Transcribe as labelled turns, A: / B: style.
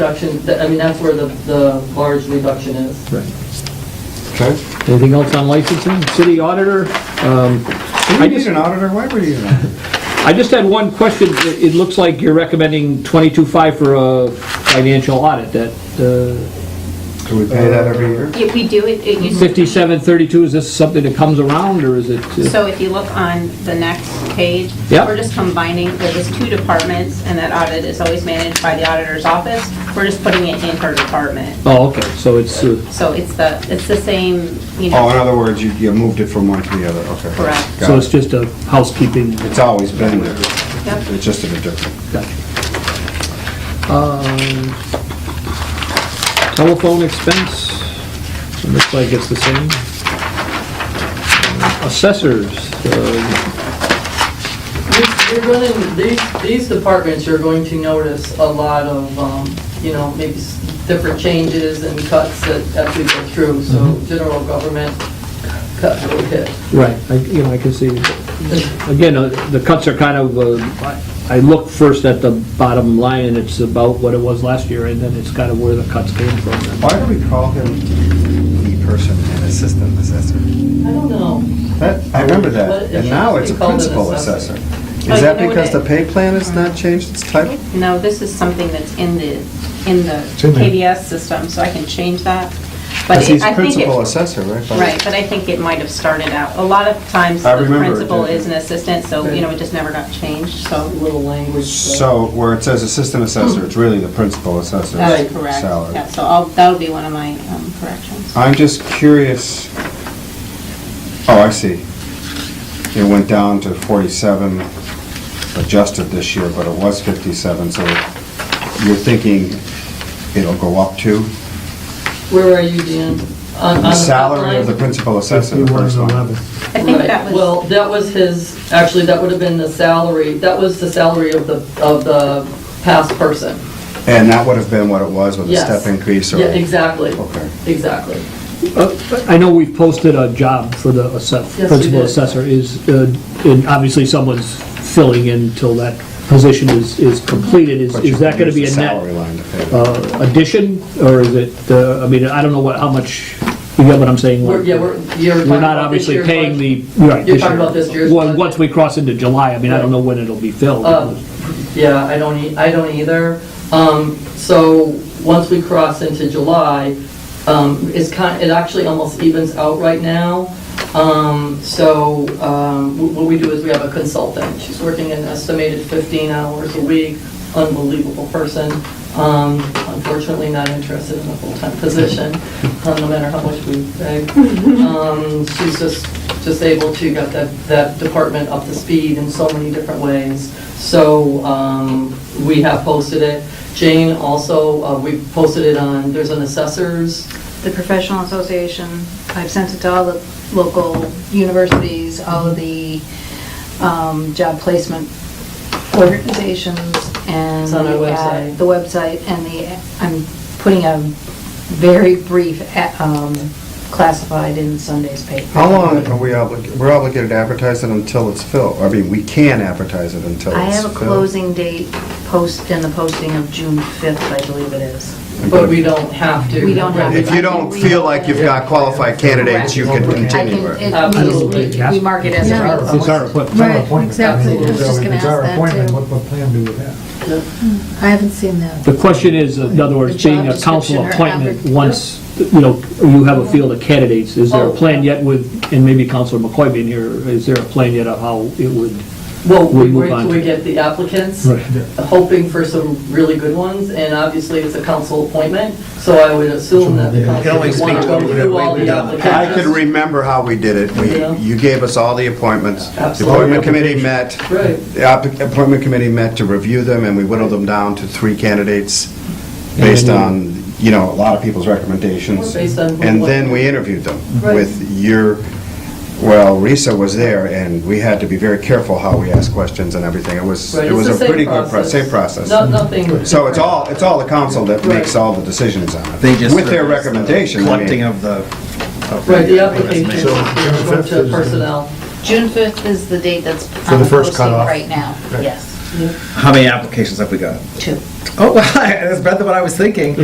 A: reduction, th- I mean, that's where the, the large reduction is.
B: Okay.
C: Anything else on licensing? City auditor? um,
B: Do
C: I
B: we need
C: just-
B: an auditor? Why would we need an auditor?
C: I just had one question. It it looks like you're recommending 22.5 for a financial audit. That uh,
B: Do we pay that every year?
D: Yeah, we do, it, it used to.
C: 5732, is this something that comes around, or is it? uh,
D: So if you look on the next page,
C: Yep.
D: we're just combining, there was two departments, and that audit is always managed by the auditor's office. We're just putting it in her department.
C: Oh, okay, so it's, uh,
D: So it's the, it's the same, you
B: Oh, in
D: know,
B: other words, you, you moved it from one to the other, okay.
D: Correct.
B: Got
C: so
B: it.
C: it's just a housekeeping.
B: It's always been there.
D: Yep.
B: It's just a bit different.
C: Gotcha. Um, Telephone expense, it looks like it's the same. Assessors, uh,
A: You're- You're going to, these, these departments, you're going to notice a lot of, um, you know, maybe s- different changes and cuts that, that we go through, so
B: Mm-hmm.
A: general government cut will hit.
C: right, I- you know, I can see, again, uh, the cuts are kind of, uh, I I look first at the bottom line, and it's about what it was last year, and then it's kind of where the cuts came from.
B: Why do we call him the person and assistant assessor?
A: I don't know.
B: That, I remember
A: What
B: that,
A: is
B: and
A: it?
B: now it's a
A: They called it
B: principal
A: assessor.
B: assessor.
D: Oh,
B: Is that
D: you know what Mm-hmm.
B: because
D: it-
B: the pay plan has not changed its title?
D: no, this is something that's in the, in the
B: in there.
D: KDS system, so I can change that. But
B: Because
D: it-
B: he's
D: I think it.
B: principal assessor, right? Bob?
D: Right, but I think it might have started out, a lot of times
B: I
D: the
B: remember it
D: principal
B: did.
D: is an assistant, so, you know, it just never got changed,
A: A
D: so.
A: little language. but-
B: So where it says assistant assessor, it's really the principal assessor's
D: That's correct.
B: salary.
D: Yeah, so I'll, that'll be one of my um, corrections.
B: I'm just curious, oh, I see. It went down to 47, adjusted this year, but it was 57, so you're thinking it'll go up to?
A: Where are you, Dan? On- on
B: The
A: top
B: salary of the
A: line?
B: principal assessor, the first line.
D: I think
A: Right.
D: that
A: Well,
D: was,
A: that was his, actually, that would have been the salary, that was the salary of the, of the past person.
B: And that would have been what it was with a
A: Yes.
B: step increase or?
A: Yeah, exactly,
B: Okay.
A: exactly.
C: Uh, I know we've posted a job for the assess-
A: you
C: principal
A: did.
C: assessor, is, uh, and obviously someone's filling in till that position is is completed. Is
B: But you
C: is that going to
B: can
C: be
B: use
C: a
B: the
C: net?
B: Salary line to pay. that.
C: uh, addition, or is it, uh, I mean, I don't know what, how much, you get what I'm saying?
A: We're, yeah, we're, you're talking
C: We're
A: about
C: not
A: this
C: obviously
A: year's
C: paying
A: budget.
C: the, right,
A: You're
C: this
A: talking about
C: year.
A: this year's
C: Well,
A: budget.
C: once we cross into July, I mean, I don't know when it'll be filled.
A: Uh, Yeah, I don't, e- I don't either. Um, so, once we cross into July, um, it's kind, it actually almost evens out right now. Um, so, um, wh- what we do is we have a consultant. She's working an estimated 15 hours a week, unbelievable person. Um, unfortunately not interested in a full-time position, uh, no matter how much we pay. Um, she's just, just able to get that, that department up to speed in so many different ways. So, um, we have posted it. Jane also, uh, we posted it on, there's an assessors,
E: the professional association. I've sent it to all the local universities, all of the um, job placement organizations, and...
A: It's on our
E: the ad-
A: website.
E: The website, and the, I'm putting a very brief a- um, classified in Sunday's paper.
B: How long are we obligated, we're obligated to advertise it until it's filled? I mean, we can advertise it until it's filled.
E: I have a closing date post, in the posting of June 5th, I believe it is.
A: but we don't have to.
E: We don't have to.
B: If you don't feel like you've got qualified candidates, you can
E: I can-
B: continue it.
E: it. means We we mark it as a
C: It's- It's our appointment.
F: Right, exactly, I was just gonna
G: It's our
F: ask that
G: appointment,
F: too.
G: what, what plan do we have?
F: I haven't seen that.
C: The question is, in other
F: The
C: words,
F: job
C: being a council
F: description or
C: appointment,
F: advert-
C: once, you know, you have a field of candidates, is there
A: Oh.
C: a plan yet with, and maybe Counselor McCoy being here, is there a plan yet of how it would?
A: Well,
C: We'll
A: we
C: move
A: wait
C: on
A: till
C: to-
A: we get the applicants,
C: Right.
A: hoping for some really good ones, and obviously it's a council appointment, so I would assume that the
G: Yeah.
A: council would want to go through all the applicants.
B: I could remember how we did it.
A: Yeah.
B: We- You gave us all the appointments. The
A: Absolutely.
B: appointment committee met.
A: Right.
B: The app- appointment committee met to review them, and we whittled them down to three candidates based on, you know, a lot of people's recommendations.
A: Based on what-
B: And then we interviewed them
A: Right.
B: with your, well, Risa was there, and we had to be very careful how we asked questions and everything. It was,
A: Right,
B: it
A: it's
B: was
A: the
B: a
A: same
B: pretty good, pro- same process.
A: No- Nothing.
B: So it's all, it's all the council that
A: Right.
B: makes all the decisions on it.
H: They just.
B: With their
H: sort of-
B: recommendation. I mean.
H: Collecting of the. of
A: Right, the
H: resumes.
A: applications
G: So,
A: go
G: June fifth
A: to
G: is-
A: personnel.
F: June 5th is the date that's
G: the
F: on the
G: first
F: posting
G: cutoff.
F: right now,
G: Right.
F: yes.
G: How many applications have we got?
E: Two.
G: Oh, wow, that's better than what I was thinking.